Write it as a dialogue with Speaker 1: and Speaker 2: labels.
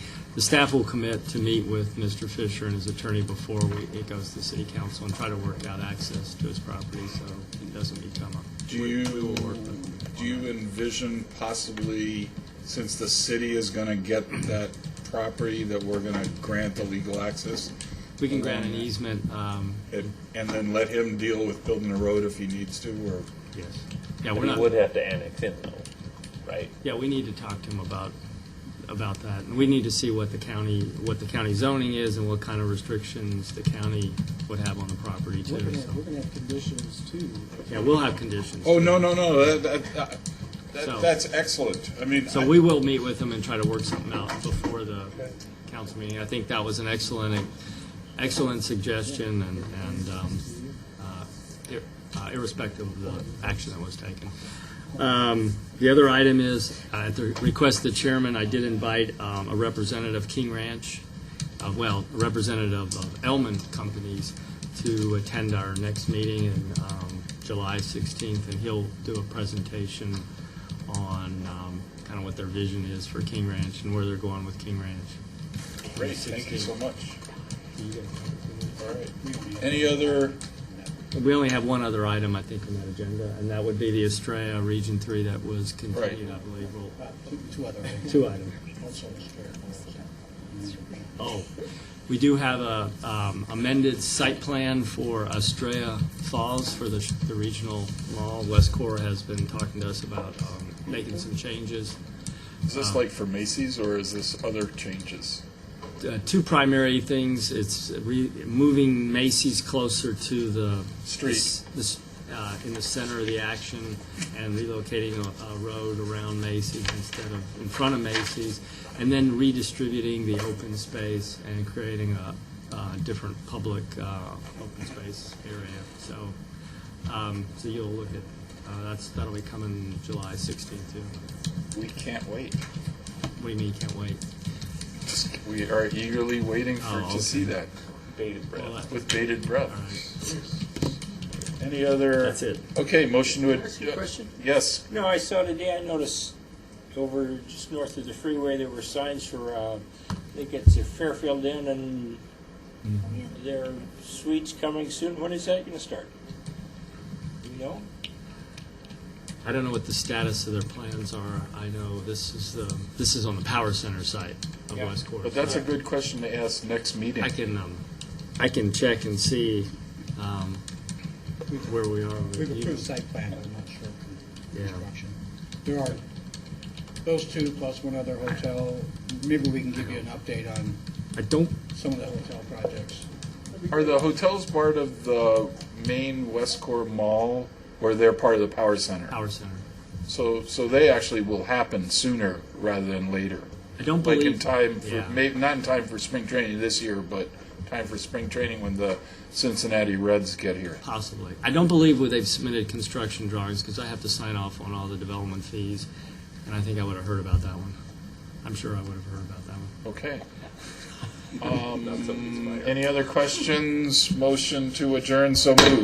Speaker 1: the staff will commit to meet with Mr. Fisher and his attorney before we, it goes to city council and try to work out access to his property so it doesn't become a,
Speaker 2: Do you, do you envision possibly, since the city is gonna get that property, that we're gonna grant the legal access?
Speaker 1: we can grant an easement, um,
Speaker 2: And and then let him deal with building a road if he needs to, or,
Speaker 1: yes. Yeah, we're
Speaker 3: We
Speaker 1: not,
Speaker 3: would have to annex in though, right?
Speaker 1: yeah, we need to talk to him about, about that. And we need to see what the county, what the county zoning is and what kind of restrictions the county would have on the property
Speaker 4: We're
Speaker 1: too,
Speaker 4: gonna,
Speaker 1: so.
Speaker 4: we're gonna have conditions too.
Speaker 1: Yeah, we'll have conditions.
Speaker 2: oh, no, no, no, that, that,
Speaker 1: So-
Speaker 2: that, that's excellent. I mean,
Speaker 1: So
Speaker 2: I-
Speaker 1: we will meet with them and try to work something out before the council meeting. I think that was an excellent, excellent suggestion and, and, um, uh, ir- uh, irrespective of the action that was taken. Um, the other item is, uh, at the request of the chairman, I did invite, um, a representative of King Ranch, uh, well, a representative of Elman Companies to attend our next meeting in, um, July sixteenth, and he'll do a presentation on, um, kind of what their vision is for King Ranch and where they're going with King Ranch.
Speaker 2: great, thank you so much.
Speaker 1: Do you guys have
Speaker 2: All right. Any other,
Speaker 1: anything? We only have one other item, I think, on that agenda, and that would be the Estrella Region Three that was continued, I believe, Well,
Speaker 4: Two- Two other things.
Speaker 1: two items.
Speaker 4: Also, it's fair.
Speaker 1: Oh, we do have a um, amended site plan for Estrella Falls for the the regional mall. West Core has been talking to us about um, making some changes.
Speaker 2: is
Speaker 1: Um,
Speaker 2: this like for Macy's, or is this other changes?
Speaker 1: Uh, Two primary things, it's re- moving Macy's closer to the.
Speaker 2: Street.
Speaker 1: This, uh, in the center of the action and relocating a a road around Macy's instead of in front of Macy's. And then redistributing the open space and creating a uh, different public uh, open space area. So, um, so you'll look at, uh, that's, that'll be coming July 16th too.
Speaker 2: We can't wait.
Speaker 1: What do you mean, you can't wait?
Speaker 2: Just- We are eagerly waiting for,
Speaker 1: Oh,
Speaker 2: to see
Speaker 1: okay.
Speaker 2: that
Speaker 3: Bated
Speaker 1: Well,
Speaker 3: breath.
Speaker 1: that-
Speaker 2: with bated breath.
Speaker 1: All
Speaker 2: Any other?
Speaker 1: That's it.
Speaker 2: Okay, motion to. ad-
Speaker 5: Ask you a question?
Speaker 2: Yes,
Speaker 5: No, I saw today, I noticed over just north of the freeway, there were signs for, uh, I think it's a Fairfield Inn and
Speaker 3: Mm-hmm.
Speaker 5: their suites coming soon. When is that gonna start? Do you know?
Speaker 1: I don't know what the status of their plans are. I know this is the, this is on the power center site of
Speaker 5: Yeah,
Speaker 1: West Court.
Speaker 2: but that's a good question to ask next meeting.
Speaker 1: I can, um, I can check and see, um, where we are. with
Speaker 4: We've
Speaker 1: you.
Speaker 4: approved site plan, but I'm not sure of
Speaker 1: Yeah.
Speaker 4: the construction. There are those two plus one other hotel. Maybe we can give you an update on
Speaker 1: I don't,
Speaker 4: some of the hotel projects.
Speaker 2: Are the hotels part of the main Westcore Mall, or they're part of the Power Center?
Speaker 1: power center.
Speaker 2: So, so they actually will happen sooner rather than later.
Speaker 1: I don't
Speaker 2: Like in
Speaker 1: believe,
Speaker 2: time, for
Speaker 1: yeah.
Speaker 2: maybe, not in time for spring training this year, but time for spring training when the Cincinnati Reds get here.
Speaker 1: possibly. I don't believe where they've submitted construction drawings because I have to sign off on all the development fees. And I think I would have heard about that one. I'm sure I would have heard about that one.
Speaker 2: Okay. Um, Any other questions? Motion to adjourn, so moved.